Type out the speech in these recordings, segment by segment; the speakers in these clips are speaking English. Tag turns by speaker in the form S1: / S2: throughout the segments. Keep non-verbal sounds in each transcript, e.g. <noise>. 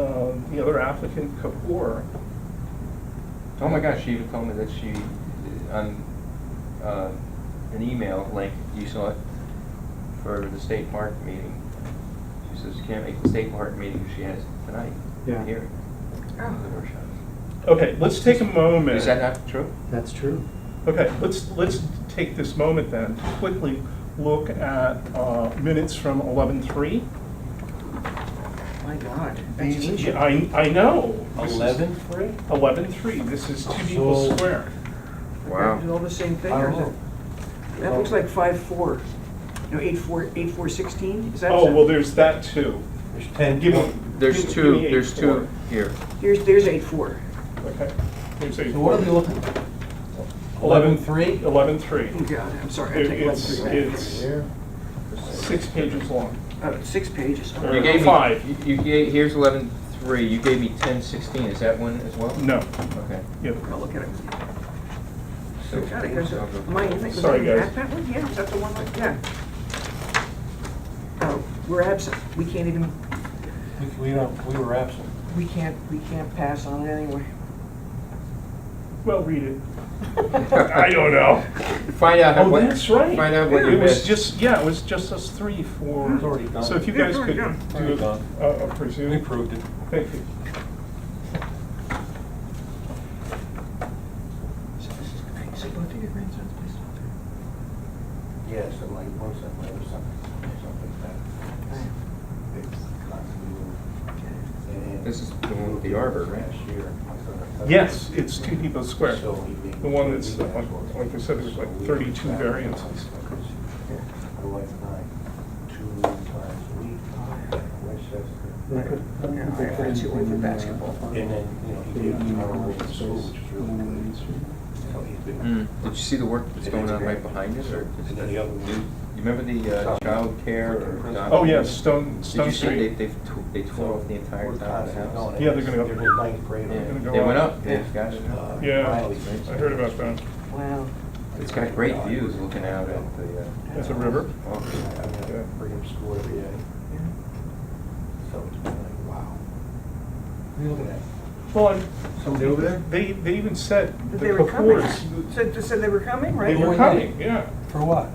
S1: um, the other applicant, Kapoor,
S2: Oh my gosh, she even told me that she, on uh, an email link, you saw it, for the state park meeting. She says she can't make the state park meeting she has tonight,
S3: Yeah.
S2: here, the workshop.
S1: okay, let's take a moment.
S2: Is that not true?
S3: That's true.
S1: Okay, let's, let's take this moment then to quickly look at uh, minutes from 11:03.
S3: My God.
S1: These, yeah, I, I know. This is-
S4: Eleven three?
S1: 11:03, this is Two Depot
S4: So-
S1: Square.
S2: Wow.
S5: all the same thing,
S4: I
S5: or
S4: don't
S5: is
S4: know.
S5: it? That looks like five, four, no, eight, four, eight, four, sixteen, is that?
S1: Oh, well, there's that too.
S4: There's ten.
S1: Give me- give-
S2: There's
S1: give
S2: two,
S1: me
S2: there's two
S1: 8:04.
S2: here.
S5: There's, there's eight, four.
S1: Okay. There's
S4: So what are we
S1: 8:04.
S4: looking? Eleven three?
S1: 11:03.
S5: Oh, God, I'm sorry, I
S1: It-
S5: take
S1: It's,
S5: eleven, three
S1: it's six pages long.
S5: back. Oh, six pages.
S1: Or
S2: You gave me-
S1: Uh, five.
S2: You, you gave- here's eleven three, you gave me ten sixteen, is that one as well?
S1: No,
S2: Okay.
S1: yeah,
S5: I'll look at it.
S2: So-
S5: God, I gotta-
S2: I'll go-
S5: mine, is it- was
S1: Sorry,
S5: it in
S1: guys.
S5: That one, yeah, is that the one, like- yeah. Oh, we're absent, we can't even,
S4: We- We don't, we were absent.
S5: we can't, we can't pass on it anyway.
S1: well, read it. I don't know.
S2: Find out. how-
S1: Oh,
S2: what-
S1: that's right.
S2: Find out what
S1: Yeah,
S2: you
S1: It was
S2: missed.
S1: just, yeah, it was just us three for.
S4: It's already done.
S1: So if you
S5: Yeah,
S1: guys
S5: it's
S1: could
S5: already done.
S1: do
S4: Already
S1: a,
S4: done.
S1: a presume.
S4: We proved it.
S1: Thank you.
S5: So this is, so both of your grandsons play soccer?
S6: Yeah, something like, one something like, or something, something like that. It's constantly moving. And-
S2: This is the one with the arbor, right?
S6: Last year, my son had-
S1: Yes, it's Two Depot Square.
S6: So he made-
S1: The one that's, uh, like- like I said, there's like 32 variances.
S6: My wife and I, two times a week, Westchester.
S5: Yeah, I- I see one for
S3: uh,
S5: basketball.
S6: And then, you know, he gave me our way to school, which was really good. So he's been-
S2: Mm. Did you see the work that's going on right behind us, or? is
S6: And then
S2: that-
S6: the other one.
S2: You you remember the uh, childcare or? dog-
S1: Oh, yes, Stone,
S2: Did
S1: Stone
S2: you see they,
S1: Street.
S2: they've, tw- they tore off the entire
S6: We're
S2: top of the
S6: constantly
S2: house?
S6: going.
S1: Yeah, they're gonna go-
S6: They're in ninth grade.
S2: Yeah,
S1: gonna go
S2: they went
S1: up.
S2: up, they've got it now.
S6: Uh,
S1: Yeah,
S6: Riley's
S1: I heard about that.
S5: Wow.
S2: It's got great views looking out at the, uh,
S1: It's a river.
S6: I
S2: office.
S6: mean, I bring him to school every day,
S5: Yeah.
S6: so it's been like, wow. What are you looking at?
S1: Well, and
S6: Somebody over there?
S1: they, they even said the
S5: That they were coming.
S1: Kapoors-
S5: Said, they said they were coming, right?
S1: They were
S4: Right.
S1: coming, yeah.
S4: For what?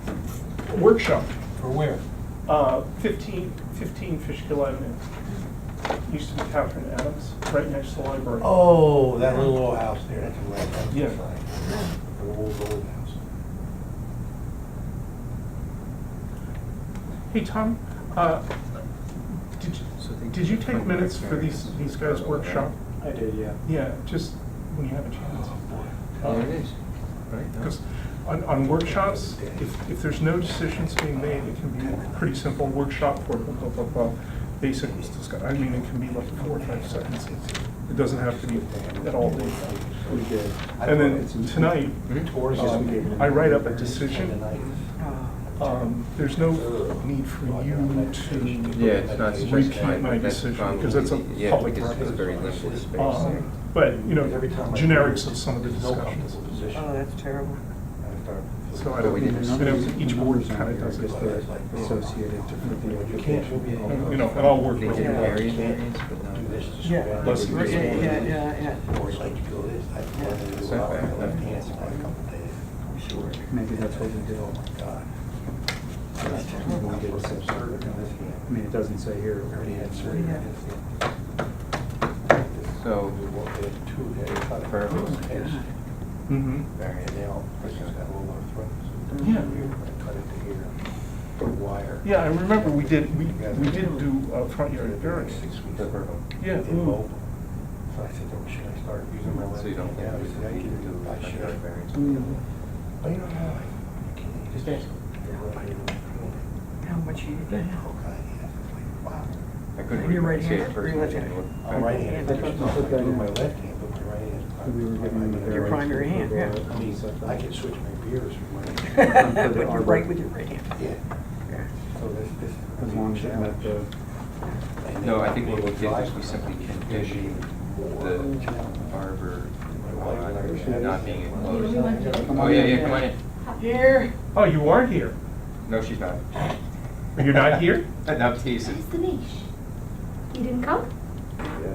S1: Workshop,
S4: For where?
S1: uh, 15, 15 Fishkill Avenue. Used to be Catherine Adams, right next to the library.
S6: Oh, that little old house there, that's a land, that's
S1: Yeah.
S6: The old, old house.
S1: Hey, Tom, uh, did you,
S2: So they-
S1: did you take minutes for these, these guys' workshop?
S4: I did, yeah.
S1: Yeah, just when you have a chance.
S6: Uh,
S2: There it is, right? No.
S1: Because on, on workshops, if, if there's no decisions being made, it can be pretty simple workshop for blah, blah, blah, blah. Basic discussion, I mean, it can be like four or five seconds. It doesn't have to be at all. day.
S6: We did.
S1: And then tonight,
S2: Hmm?
S6: Tours.
S1: um, I write up a decision.
S5: Oh,
S1: Um, There's no need for you to,
S2: Yeah, it's not
S1: Repeat
S2: specified,
S1: my
S2: but that's
S1: decision,
S2: probably,
S1: because that's a
S2: yeah,
S1: public
S2: because it's
S1: record.
S2: very limited space.
S1: um, but, you know,
S6: Every time I-
S1: generics of some of the
S6: There's no comfortable
S1: discussions.
S6: position.
S5: Oh, that's terrible.
S6: I start-
S1: So I
S2: But
S1: don't,
S2: we
S1: you
S2: didn't-
S1: know, each board kind of does it.
S6: It's like, oh,
S3: Associated with the
S6: You can't do
S3: application.
S6: it.
S1: You know, and I'll work
S2: They
S1: with
S2: did
S5: Yeah.
S1: you.
S2: various variants, but not.
S6: do this to
S5: Yeah.
S6: square.
S2: Let's-
S6: Or
S2: yeah,
S5: yeah, yeah, yeah.
S6: Or like you go this, I planned to do a lot of left hand side a couple days.
S5: Sure.
S3: Maybe that's what we did.
S6: Oh my God.
S5: That's terrible.
S3: We did some sort of- I mean, it doesn't say here.
S6: Already had surgery.
S5: Yeah.
S2: So,
S6: We walked in two days, I thought it
S2: Perfect.
S6: was heads.
S1: hmm
S6: And they all, person's got a little arthritis.
S1: Yeah.
S6: We were gonna cut it to here, put wire.
S1: Yeah, I remember we did, we, we did do uh, front yard variance.
S6: Six weeks.
S2: the verbal.
S1: Yeah, ooh.
S6: Immobile. So I said, oh, should I start using my left?
S2: So you don't think
S6: hand now?"
S2: we
S6: He said, "I
S2: need to
S6: can
S2: do
S6: do it. I
S2: like
S6: should.
S2: another variance?
S6: But you don't know, like, you can't.
S2: Just ask.
S6: They're right in the corner.
S5: How much you
S6: That
S5: get? <laughs>
S6: whole guy, Oh, yeah, it's like, wow.
S2: I couldn't
S5: You're
S2: really see it
S5: right-handed?
S2: first.
S5: You're left-handed.
S6: I'm right handed.
S5: I thought
S3: you said that in-
S6: My left hand, but my right hand. is-
S3: We were given the
S5: Your
S3: variance
S5: primary hand,
S3: for the-
S5: yeah.
S6: I mean, I could switch my beers from
S3: <laughs>
S6: my.
S5: But you're right with your right hand.
S6: Yeah,
S5: Yeah.
S6: so this, this. is a
S3: As long as you met
S6: challenge.
S3: the,
S6: And then
S2: No, I think what
S6: they
S2: we did was
S6: drive
S2: we
S6: us
S2: simply conditioned
S6: more.
S2: the arbor on not being enclosed.
S7: We want to-
S2: Oh, yeah, yeah, come on in.
S5: Here.
S1: Oh, you are here.
S2: No, she's not.
S1: You're not here?
S2: <laughs> Not teasing.
S7: Where's the niche? You didn't come?